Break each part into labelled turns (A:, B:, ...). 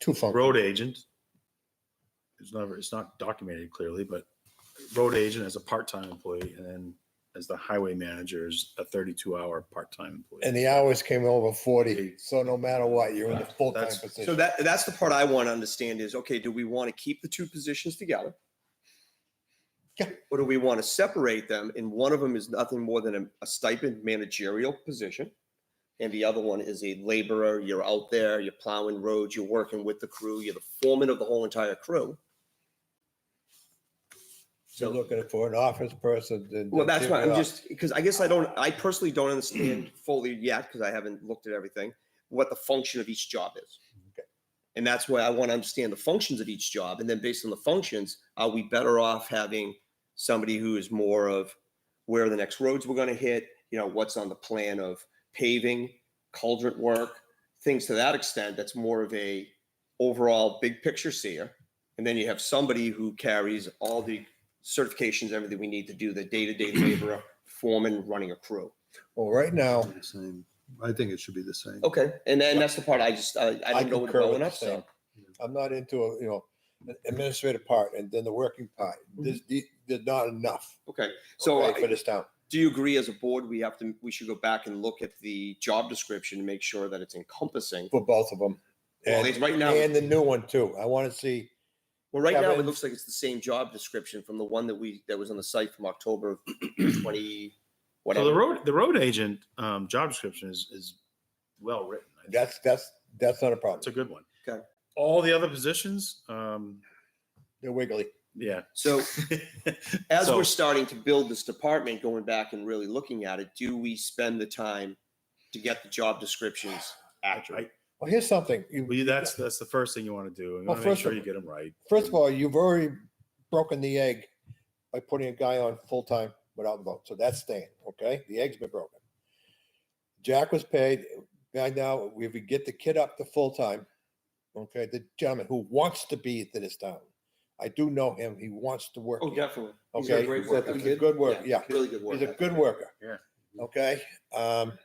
A: Two phone.
B: Um, road agent. It's never, it's not documented clearly, but road agent as a part-time employee and then as the highway manager is a thirty-two hour part-time employee.
A: And the hours came over forty, so no matter what, you're in the full-time
B: That's-
C: So
A: position.
C: that, Ah, that's the part I want to understand is, okay, do we want to keep the two positions together?
A: Yeah.
C: Or do we want to separate them and one of them is nothing more than a- a stipend managerial position? And the other one is a laborer, you're out there, you're plowing roads, you're working with the crew, you're the foreman of the whole entire crew.
A: You're looking for an office person, then.
C: Well, that's why I'm
A: Yeah.
C: just, because I guess I don't, I personally don't understand fully yet, because I haven't looked at everything, what the function of each job is.
A: Okay.
C: And that's why I want to understand the functions of each job. And then based on the functions, are we better off having somebody who is more of where the next roads we're going to hit, you know, what's on the plan of paving, cauldron work, things to that extent, that's more of a overall big picture seer. And then you have somebody who carries all the certifications, everything we need to do the day-to-day labor, foreman, running a crew.
A: Well, right now, Oh,
D: The same. I think it should be the same.
C: Okay, and then that's the part I just, I, I
A: I
C: didn't know what
A: concur with
C: going
A: the
C: up,
A: same.
C: so.
A: I'm not into, a you know, the administrative part and then the working part. This, the- there's not enough.
C: Okay, Mm-hmm. so
A: okay, For
C: I-
A: this town.
C: do you agree as a board, we have to, we should go back and look at the job description and make sure that it's encompassing?
A: for both of them.
C: Well,
A: And,
C: it's right now,
A: and the new one too. I want to see,
C: well, right now, it
A: Kevin-
C: looks like it's the same job description from the one that we, that was on the site from October of
B: So
C: twenty,
B: the
C: whatever.
B: road, the road agent, um, job description is, is well written. I think.
A: that's, that's, that's not a
B: That's a
A: problem.
B: good one.
C: Okay.
B: All the other positions, um,
A: They're wiggly.
B: yeah.
C: So as
B: So-
C: we're starting to build this department, going back and really looking at it, do we spend the time to get the job descriptions accurate?
B: I-
A: Well, here's something. You-
B: Well, that's, that's the first thing you want to do. You
A: Well,
B: want to make
A: first
B: sure
A: of-
B: you get them right.
A: First of all, you've already broken the egg by putting a guy on full-time without vote. So that's staying, okay? The egg's been broken. Jack was paid. By now, if we get the kid up to full-time, okay, the gentleman who wants to be to this town. I do know him. He wants to work.
C: Oh,
A: here.
C: definitely. He's a
A: Okay,
C: great
A: he's a-
C: worker.
A: he's a
C: kid.
A: good worker, yeah.
C: Really good worker.
A: He's a good worker.
B: Yeah.
A: Okay, um.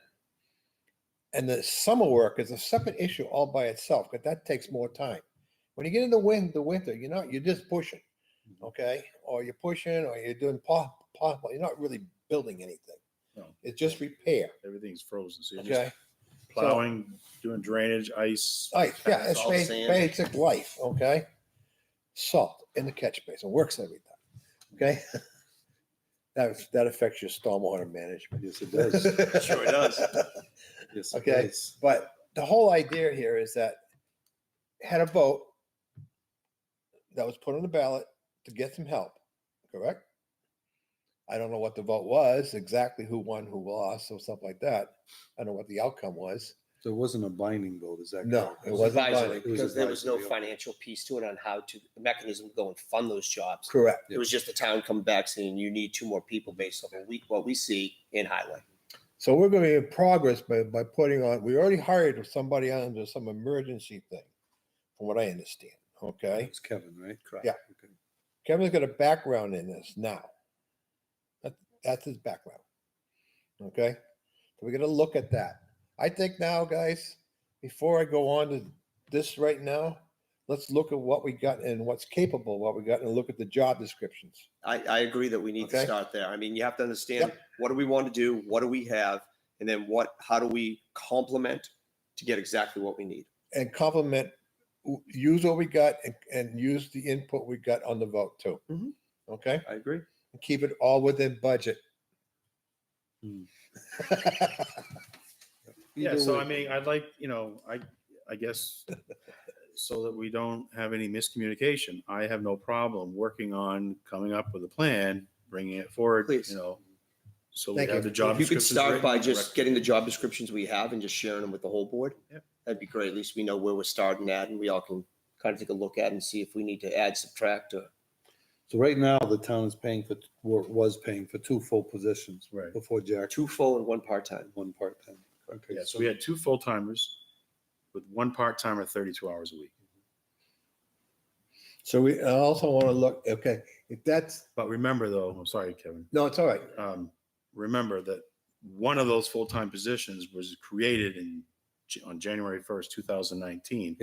A: And the summer work is a separate issue all by itself, because that takes more time. When you get in the wind, the winter, you're not, you're just pushing, okay? Or you're pushing, or you're doing pop, pop, you're not really building anything.
B: No.
A: It's just repair,
B: Everything's frozen. So you're just
A: okay? So-
B: plowing, doing drainage, ice.
C: Uh,
A: Right, yeah, it's
C: all
A: ba-
C: sand.
A: basic life, okay? Salt in the catch basin, works every time, okay? That, that affects your stormwater management.
D: Yes, it does.
C: Sure it does.
D: Yes, it
A: Okay.
D: does.
A: But the whole idea here is that had a vote that was put on the ballot to get some help, correct? I don't know what the vote was, exactly who won, who lost, or stuff like that. I don't know what the outcome was.
D: So it wasn't a binding vote, is that?
A: No,
D: correct?
A: it wasn't
C: advisory
A: binding.
D: It was
C: because there was no
D: advisory, yeah.
C: financial piece to it on how to the mechanism to go and fund those jobs.
A: Correct.
C: It was just the town come back saying you need two more people based on what we, what we see in highway.
A: So we're going to be in progress by, by putting on, we already hired somebody under some emergency thing, from what I understand, okay?
D: It's Kevin, right? Correct.
A: Yeah.
D: Okay.
A: Kevin's got a background in this now. That, that's his background. Okay. So we're going to look at that. I think now, guys, before I go on to this right now, let's look at what we got and what's capable, what we got, and look at the job descriptions.
C: I, I agree that we need to
A: Okay.
C: start there. I mean, you have to understand, what do we want to do? What do we have? And then what, how do we complement to get exactly what we need?
A: and complement, w- use what we got and, and use the input we got on the vote too.
C: Mhm.
A: Okay,
C: I agree.
A: and keep it all within budget.
D: Hmm.
B: Yeah,
D: Either
B: so
D: way,
B: I mean, I'd like, you know, I, I guess, so that we don't have any miscommunication, I have no problem working on coming up with a plan, bringing it forward,
C: Please.
B: you know. So we
A: Thank
B: have
A: you.
B: the job.
C: If you could
B: descriptions
C: start
B: written,
C: by
B: the
C: just
B: rec-
C: getting the job descriptions we have and just sharing them with the whole board.
B: Yep.
C: That'd be great. At least we know where we're starting at and we all can kind of take a look at and see if we need to add, subtract or.
D: So right now, the town is paying for, wa- was paying for two full positions.
B: Right.
D: Before Jack,
C: two full and one part-time.
D: one part-time. Okay.
B: Yeah, so we had two full timers with one part timer, thirty-two hours a week.
A: So we I also want to look, okay, if that's,
B: But remember though, I'm sorry, Kevin,
A: no, it's all right.
B: um, remember that one of those full-time positions was created in, Ja- on January first, two thousand nineteen.